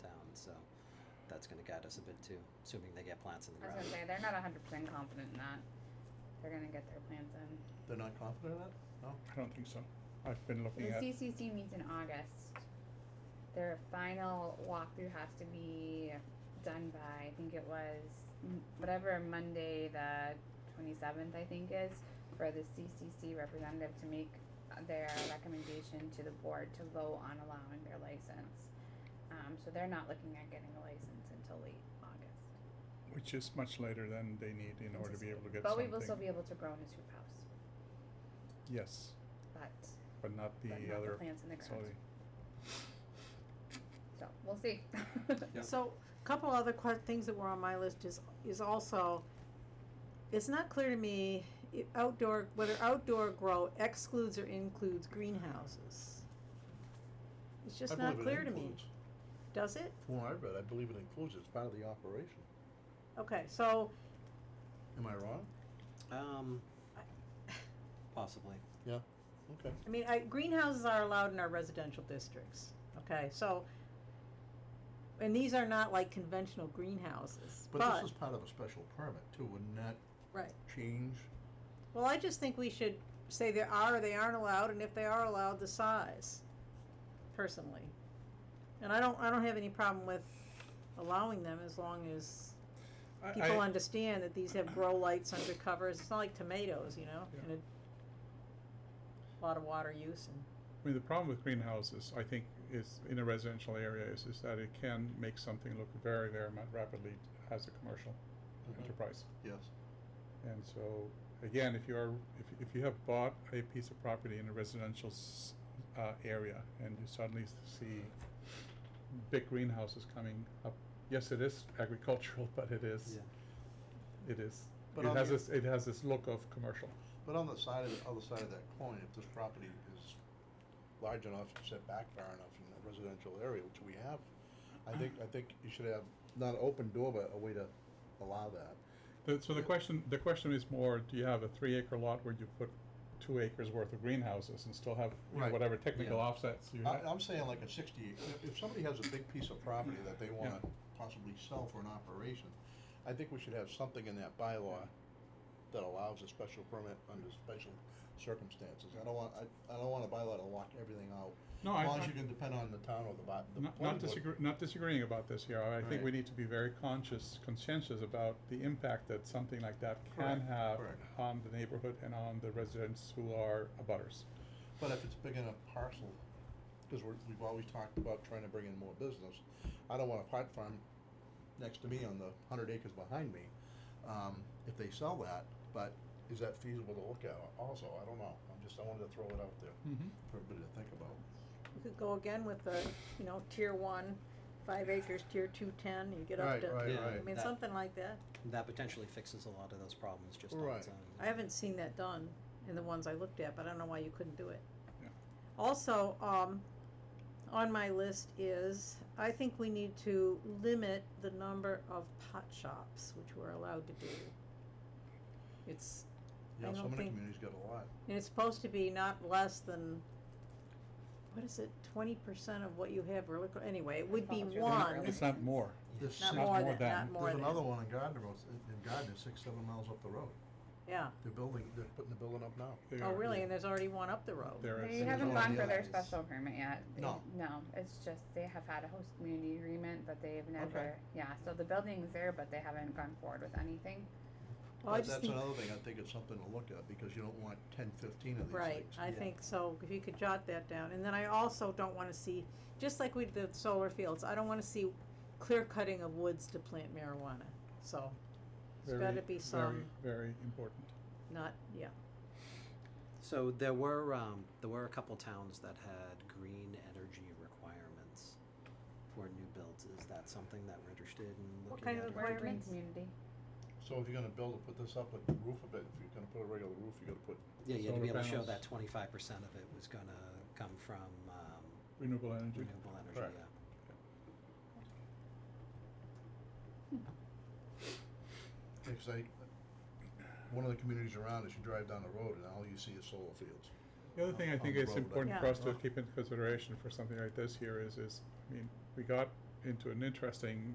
that's gonna guide us a bit too, assuming they get plants in the I was ground. gonna say, they're not hundred percent confident in that. They're gonna get their plans in. They're not confident in that? No? I don't think so. I've been The looking at, CCC meets in August. Their final walkthrough has to be done by, I think it was m- whatever Monday, the twenty-seventh, I think is, for the CCC representative to make uh, their recommendation to the board to vote on allowing their license. Um, so they're not looking at getting a license until late August. which is much later than they need in order to be able to get But we something. will still be able to grow in a hoop house, Yes, but, but not but the not the other, plants in the ground, sorry. so, we'll see. Yep. So, a couple other que- things that were on my list is, is also, it's not clear to me, i- outdoor, whether outdoor grow excludes or includes greenhouses. It's I just not believe it clear to me, includes. does it? From what I read, I believe it includes, it's part of the operation. Okay, so, Am I wrong? Um, possibly. Yeah, okay. I mean, I, greenhouses are allowed in our residential districts, okay, so, and these are not like conventional greenhouses, but, But this is part of a special permit too, wouldn't that right. change? Well, I just think we should say they are or they aren't allowed, and if they are allowed, the size, personally. And I don't, I don't have any problem with allowing them as long as I- people I- understand that these have grow lights under covers, it's not like tomatoes, you know, Yeah. and a lot of water use and. I mean, the problem with greenhouses, I think, is in a residential area is, is that it can make something look very, very mu- rapidly as a commercial Mm-hmm. enterprise. Yes. And so, again, if you are, if, if you have bought a piece of property in a residential s- uh, area and you suddenly s- see big greenhouses coming up, yes, it is agricultural, but it is, it is, But it on has the- this, it has this look of commercial. But on the side of, the other side of that coin, if this property is large enough, set back far enough from the residential area, which we have, I think, I think you should have, not an open door, but a way to allow that. The, so the question, the question is more, do you have a three acre lot where you put two acres worth of greenhouses and still have, you know, Right. Uh, whatever technical Yeah. offsets you I, have? I'm saying like a sixty, if- if somebody has a big piece of property that they wanna possibly sell for an operation, I think we should have something in that bylaw that allows a special permit under special circumstances. I don't want, I, I don't want a bylaw to lock everything out. No, I- As long I- as you can depend on the town or the by, the Not, planning not board. disagree, not disagreeing about this here, I think we Right. need to be very conscious, conscientious about the impact that something like that can Correct, have correct. on the neighborhood and on the residents who are abutters. But if it's big enough parcel, cause we're, we've always talked about trying to bring in more business, I don't want a pot farm next to me on the hundred acres behind me, um, if they sell that, but is that feasible to look at also, I don't know, I'm just, I wanted to throw it out there for everybody to think about. We could go again with the, you know, tier one, five acres, tier two, ten, you get up Right, to, right, Yeah. I right. mean, That- something like that. That potentially fixes a lot of those problems just on Right. its own. I haven't seen that done in the ones I looked at, but I don't know why you couldn't do it. Yeah. Also, um, on my list is, I think we need to limit the number of pot shops which we're allowed to do. It's, I Yeah, so don't many think- communities got a lot. and it's supposed to be not less than, what is it, twenty percent of what you have or liquor, anyway, it would be Volunteer liquor one, It's not more, There's not six- Not more more than, than. not more There's than, another one in Gardner, Road, in in Gardner, six, seven miles up the road, yeah. they're building, they're putting the building up now. They Oh, are- really, Oh, and there's already one up the road. there is. They haven't Yeah. gone for their Yeah. special permit yet. They- No. No, it's just they have had a host community agreement, but they've never, Okay. yeah, so the building's there, but they haven't gone forward with anything. Well, I But just think- That's another thing, I think it's something to look at, because you don't want ten, fifteen of these things. Right, I Yeah. think so, if you could jot that down, and then I also don't wanna see, just like we did the solar fields, I don't wanna see clear cutting of woods to plant marijuana, so. It's Very, gotta be some, Very, very important. not, yeah, So there were um, there were a couple towns that had green energy requirements for new builds. Is that something that we're interested in looking What kind at? of or- We're a green Requirements? community. So if you're gonna build and put this up, like the roof of it, if you're gonna put a regular roof, you gotta put, Yeah, you had to Solar be able to show panels. that twenty five percent of it was gonna come from um, Renewable energy. renewable energy. Correct. Yeah. because I, one of the communities around is you drive down the road and all you see is solar fields. The other on- thing I on think the is road, I important think. for us to Yeah. keep in consideration for something like this here is, is, I mean, we got into an interesting